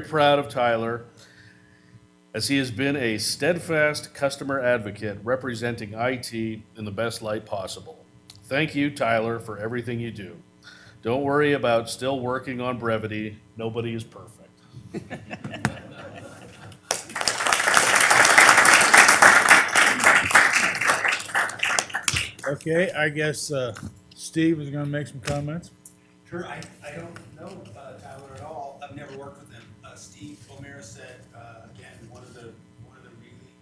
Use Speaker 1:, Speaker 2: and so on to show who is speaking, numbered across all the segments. Speaker 1: very proud of Tyler, as he has been a steadfast customer advocate representing IT in the best light possible. Thank you, Tyler, for everything you do. Don't worry about still working on brevity. Nobody is perfect.
Speaker 2: Okay, I guess uh, Steve is gonna make some comments.
Speaker 3: Sure, I, I don't know uh, Tyler at all. I've never worked with him. Uh, Steve O'Meara said, uh, again, one of the, one of the really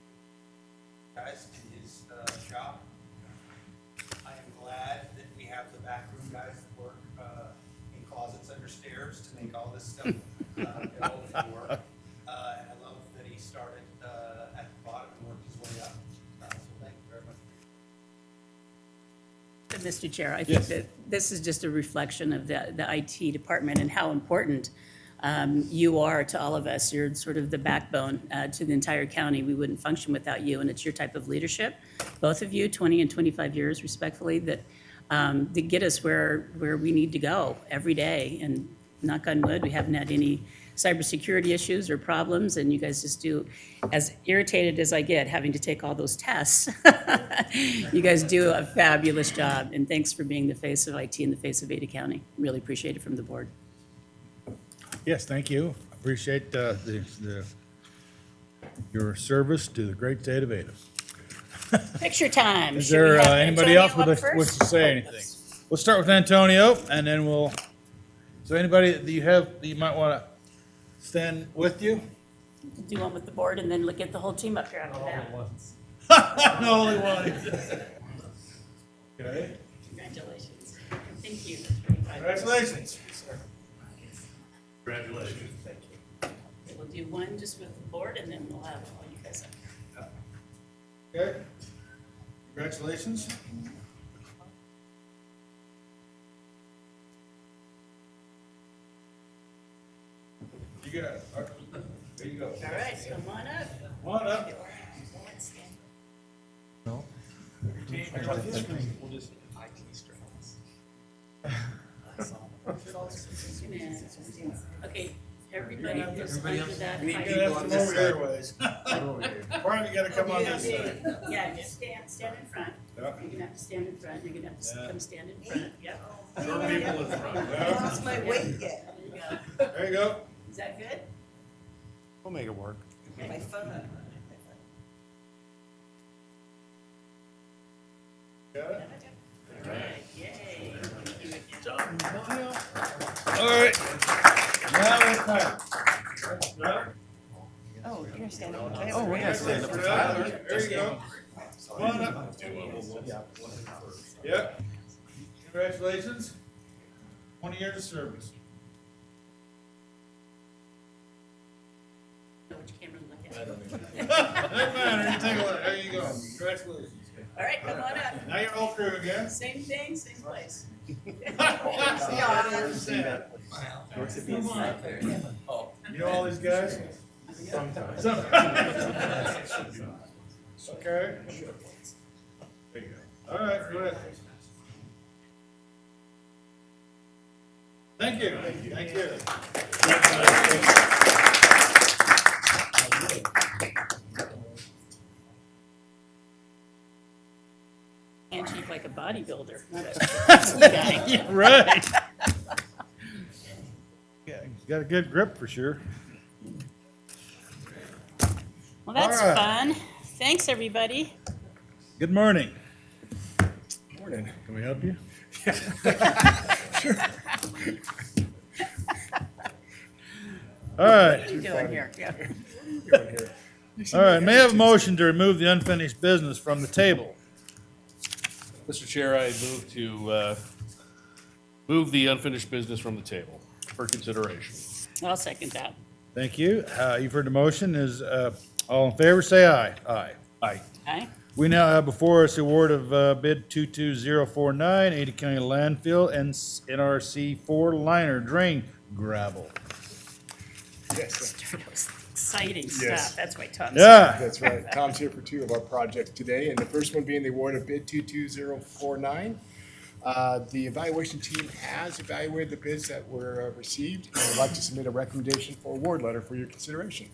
Speaker 3: guys in his, uh, shop. I am glad that we have the backroom guys that work, uh, in closets under stairs to make all this stuff, uh, go and work. Uh, and I love that he started, uh, at the bottom and worked his way up. Uh, so thank you very much.
Speaker 4: But, Mr. Chair, I think that this is just a reflection of the, the IT department and how important um, you are to all of us. You're sort of the backbone uh, to the entire county. We wouldn't function without you, and it's your type of leadership, both of you, 20 and 25 years respectfully, that, um, that get us where, where we need to go every day. And knock on wood, we haven't had any cybersecurity issues or problems, and you guys just do, as irritated as I get having to take all those tests, you guys do a fabulous job, and thanks for being the face of IT and the face of Ada County. Really appreciate it from the board.
Speaker 2: Yes, thank you. Appreciate uh, the, the, your service to the great state of Ada.
Speaker 4: Picture time.
Speaker 2: Is
Speaker 4: Should we
Speaker 2: there uh,
Speaker 4: have
Speaker 2: anybody else
Speaker 4: Antonio
Speaker 2: with
Speaker 4: up
Speaker 2: a- wants
Speaker 4: first?
Speaker 2: to say anything? We'll start with Antonio, and then we'll, so anybody that you have, that you might wanna stand with you?
Speaker 4: Do one with the board, and then look at the whole team up here after that.
Speaker 2: I'm the only one. Okay,
Speaker 4: Congratulations. Thank you.
Speaker 2: congratulations.
Speaker 4: We'll do one just with the board, and then we'll have all you guys up.
Speaker 2: Okay, congratulations. You got, it. there you go.
Speaker 4: All right, so come on up.
Speaker 2: Come on up.
Speaker 4: Okay, everybody goes under that.
Speaker 2: You gotta have to move your ways. Brian, you gotta come on this side.
Speaker 4: Yeah, just stand, stand in front.
Speaker 2: Yeah.
Speaker 4: You're gonna have to stand in front, you're gonna have to
Speaker 2: Yeah.
Speaker 4: come stand in front, yep.
Speaker 2: Yeah,
Speaker 5: lost my weight yet,
Speaker 4: There you go.
Speaker 2: There you go.
Speaker 4: Is that good?
Speaker 1: We'll make it work.
Speaker 5: my phone.
Speaker 2: Got it?
Speaker 4: All right, yay.
Speaker 2: All right. Now it's time.
Speaker 5: Oh, you're standing.
Speaker 6: Oh, we gotta stand up for Tyler.
Speaker 2: There you go. Come on up. Yep. Congratulations. Twenty years of service.
Speaker 4: Know which camera to look at.
Speaker 2: Doesn't matter. You take a look. There you go. Congratulations.
Speaker 4: All right, come on up.
Speaker 2: Now you're all through again.
Speaker 4: Same thing, same place.
Speaker 2: You know all these guys? Some- Okay. There you go. All right, go ahead. Thank you, thank you.
Speaker 4: And she's like a bodybuilder.
Speaker 2: Right. Yeah, he's got a good grip for sure.
Speaker 4: Well,
Speaker 2: that's
Speaker 4: that's
Speaker 2: All right.
Speaker 4: fun. Thanks, everybody.
Speaker 2: Good morning. Morning. Can we help you? All right.
Speaker 4: What are you doing here?
Speaker 2: All right, may I have a motion to remove the unfinished business from the table?
Speaker 1: Mr. Chair, I move to, uh, move the unfinished business from the table for consideration.
Speaker 4: I'll second that.
Speaker 2: Thank you. Uh, You've heard the motion. Is, uh, all in favor, say aye. Aye.
Speaker 1: Aye.
Speaker 4: Aye.
Speaker 2: We now have before us the award of uh, bid 22049, Ada County Landfill and s- NRC 4 liner drain gravel.
Speaker 4: Exciting
Speaker 6: Yes.
Speaker 4: stuff. That's why Tom's.
Speaker 2: Yeah,
Speaker 6: That's right. Tom's here for two of our projects today, and the first one being the award of bid 22049. Uh,
Speaker 7: Uh, The evaluation team has evaluated the bids that were uh, received, and would like to submit a recommendation for award letter for your consideration.